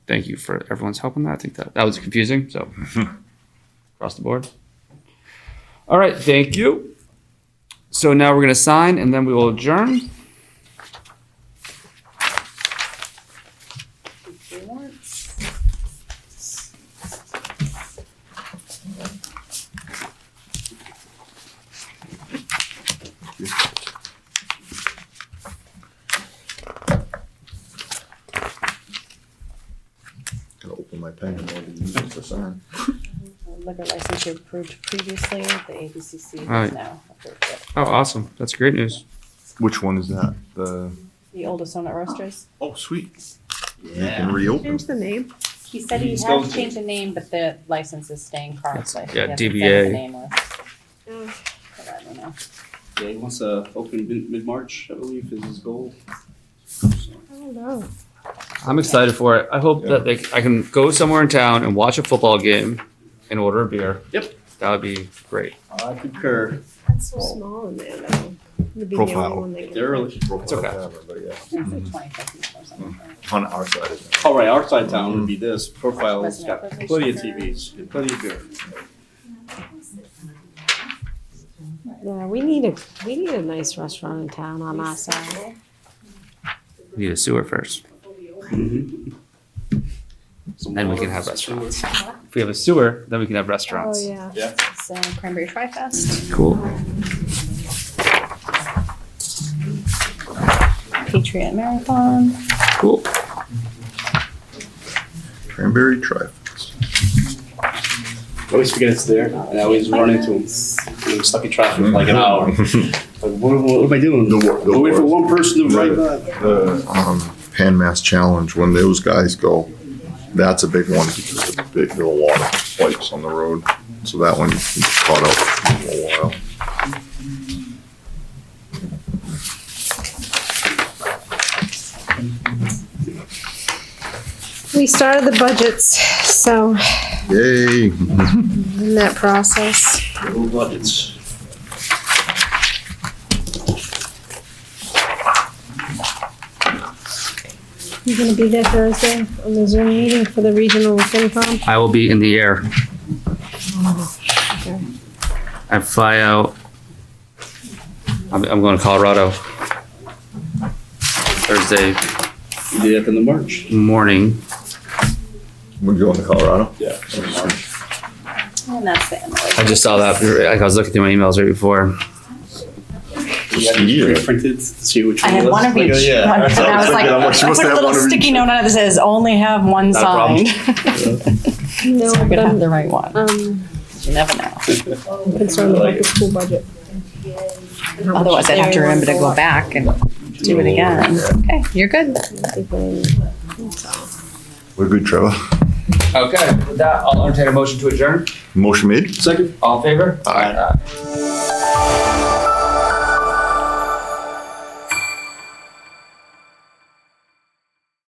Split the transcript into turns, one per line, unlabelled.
thank you for everyone's help on that. I think that, that was confusing, so across the board. All right, thank you. So now we're gonna sign and then we will adjourn.
Gotta open my pen and open the minutes for sign.
um, Liquor license you approved previously, the ABCC
Right.
has now approved it.
Oh, awesome. That's great news.
Which one is that? The.
The oldest owner roasters.
Oh, sweet. You can reopen.
Change the name.
He said he
He's
had
going to-
changed the name, but the license is staying currently.
yeah,
He hasn't said
DBA.
the name was,
Oh,
but I don't know.
Yeah, he wants to open mid- mid-March, I believe, is his goal.
I don't know.
I'm excited for it. I hope that they, I can go somewhere in town and watch a football game and order a beer.
Yep.
That would be great.
I concur.
That's so small in there, though. It'd be the only
Profile.
one they can-
They're early.
It's okay.
But yeah,
It's
Mm-hmm.
like 25 or something.
On our side. of it.
All right, our side town would be
Mm-hmm.
this. Profile's
Wasn't
got
it provision
plenty of
for-
TVs, and plenty of beer.
Yeah, we need a, we need a nice restaurant in town on our side.
We Need a sewer first.
Some
Then Mm-hmm. we
water,
can have
some
restaurants.
sewer.
If we have a sewer, then we can have
Oh,
restaurants.
yeah.
Yeah,
It's uh, Cranberry Tri Fest,
Cool.
Patriot Marathon.
Cool.
Cranberry trifles.
I always forget it's there, and I always run into him. I'm stuck in traffic for like an hour. Like, what, what am I doing?
The wor- the
I'm waiting for
worst.
one person to write that.
The, um, Pan Mass Challenge, when those guys go, that's a big one because it's big, there are a lot of spikes on the road. So that one caught up for a while.
We started the budgets, so
Yay.
in that process.
Little budgets.
You're gonna be there Thursday on the Zoom meeting for the regional FinCom?
I will be in the air.
Okay.
I fly out. I'm, I'm going to Colorado Thursday
You did it in the March.
morning.
We going to Colorado?
Yeah. March.
And that's the end of
I
it.
just saw that. Like I was looking through my emails right before.
You had
Yeah.
it pre-printed to see which
I
one
had
was.
one of each.
yeah,
And I was
that's what I was
like,
thinking. I'm like, she
I
must
put
have
a little
one of each.
sticky note on it that says, only have one
Not a problem.
signed.
No,
So I
but
could have
I'm,
the right one.
um,
You never know.
concerned about the school budget.
Otherwise, I'd have to remember to go back and do it again. Okay, you're good.
We're good, Trevor.
Okay, with that, I'll entertain a motion to adjourn.
Motion made?
Second.
All in favor?
Aye.